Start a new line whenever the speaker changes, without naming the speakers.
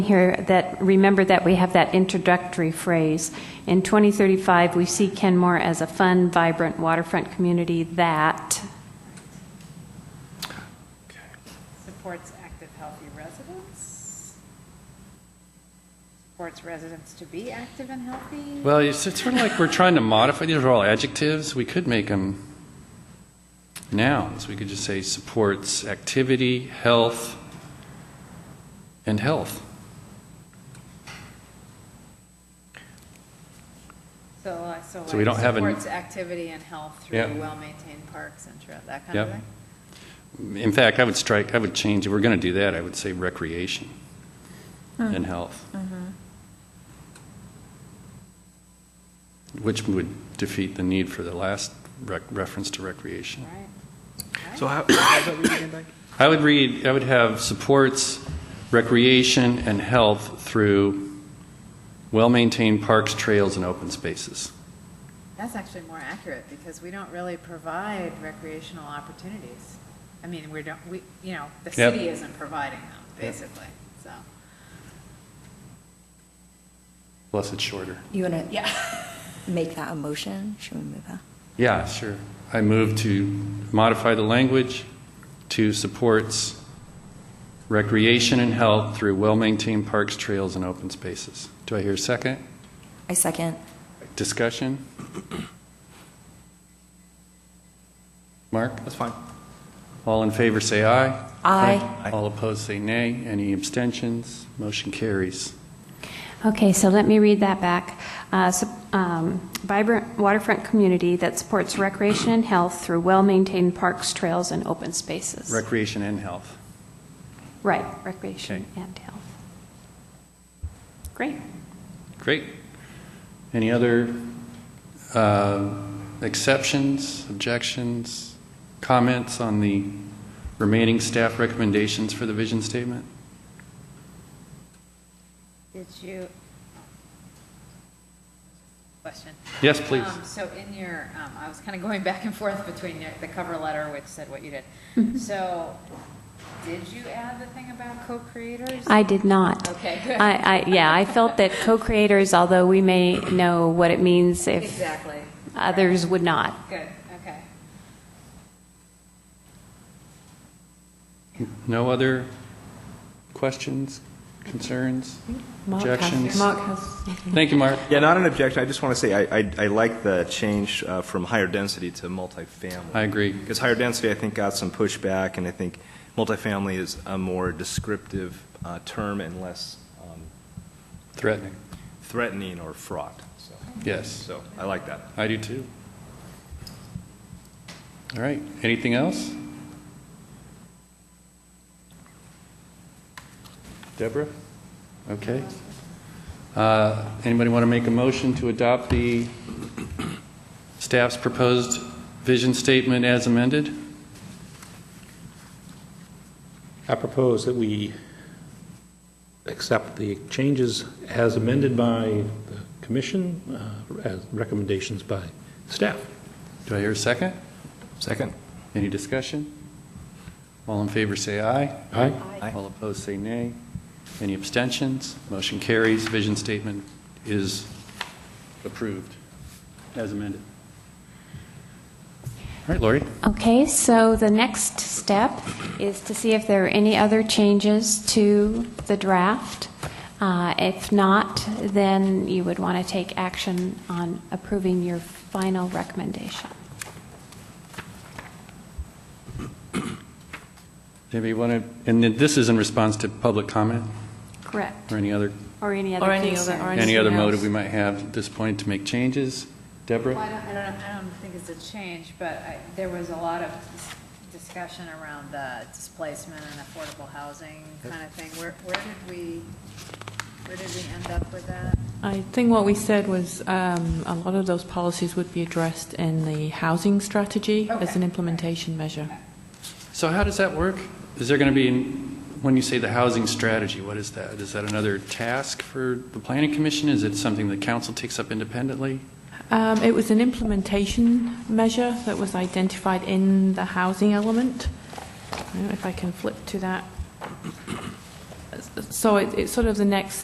here that, remember that we have that introductory phrase. In 2035, we see Kenmore as a fun, vibrant waterfront community that,
Supports active, healthy residents. Supports residents to be active and healthy.
Well, it's it's sort of like we're trying to modify, these are all adjectives, we could make them nouns. We could just say supports activity, health, and health.
So, uh, so
So we
like
don't have an-
supports activity and health
Yeah.
through well-maintained parks and trail, that kind of
Yep.
thing.
In fact, I would strike, I would change, if we're going to do that, I would say recreation and health. Which would defeat the need for the last rec- reference to recreation.
Right.
So how, how's that reading again,
I would read, I would have supports recreation and health through well-maintained parks, trails, and open spaces.
That's actually more accurate because we don't really provide recreational opportunities. I mean, we don't, we, you know, the
Yep.
city isn't providing them, basically, so.
Plus, it's shorter.
You want to make that a motion? Should we move that?
Yeah, sure. I move to modify the language to supports recreation and health through well-maintained parks, trails, and open spaces. Do I hear a second?
I second.
Discussion? Mark?
That's fine.
All in favor, say aye.
Aye.
All opposed, say nay. Any abstentions? Motion carries.
okay, so let me read that back. Uh, sup- um, Vibrant waterfront community that supports recreation and health through well-maintained parks, trails, and open spaces.
Recreation and health.
Right, recreation and health. Great.
Great. Any other uh, exceptions, objections, comments on the remaining staff recommendations for the vision statement?
Did you? Question.
Yes, please.
Um, So in your, um, I was kind of going back and forth between your- the cover letter, which said what you did. So, did you add the thing about co-creators?
I did not.
Okay, good.
I, I, yeah, I felt that co-creators, although we may know what it means if
Exactly.
others would not.
Good, okay.
No other questions, concerns,
Mark has-
objections?
Mark
Thank you, Mark.
Yeah, not an objection. I just want to say I, I, I like the change uh, from higher density to multifamily.
I agree.
Because higher density, I think, got some pushback, and I think multifamily is a more descriptive uh, term and less um,
Threatening.
threatening or fraught. So,
Yes,
so I like that.
I do too. All right, anything else? Deborah? Okay. Uh, Anybody want to make a motion to adopt the staff's proposed vision statement as amended?
I propose that we accept the changes as amended by the commission, uh, as recommendations by staff.
Do I hear a second?
Second.
Any discussion? All in favor, say aye.
Aye?
Aye.
All opposed, say nay. Any abstentions? Motion carries. Vision statement is approved as amended. All right, Lori?
Okay, so the next step is to see if there are any other changes to the draft. Uh, If not, then you would want to take action on approving your final recommendation.
Maybe want to, and then this is in response to public comment
Correct.
or any other,
Or any other
Or any other- or
concern.
any other
Anything else?
motive we might have at this point to make changes?
Well, I
Deborah?
don't, I don't, I don't think it's a change, but I, there was a lot of dis- discussion around the displacement and affordable housing kind of thing. Where, where did we, where did we end up with that?
I think what we said was um, a lot of those policies would be addressed in the housing strategy as an implementation measure.
So how does that work? Is there going to be, when you say the housing strategy, what is that? Is that another task for the planning commission? Is it something the council takes up independently?
Um, It was an implementation measure that was identified in the housing element. I don't know if I can flip to that. That's the so it- it's sort of the next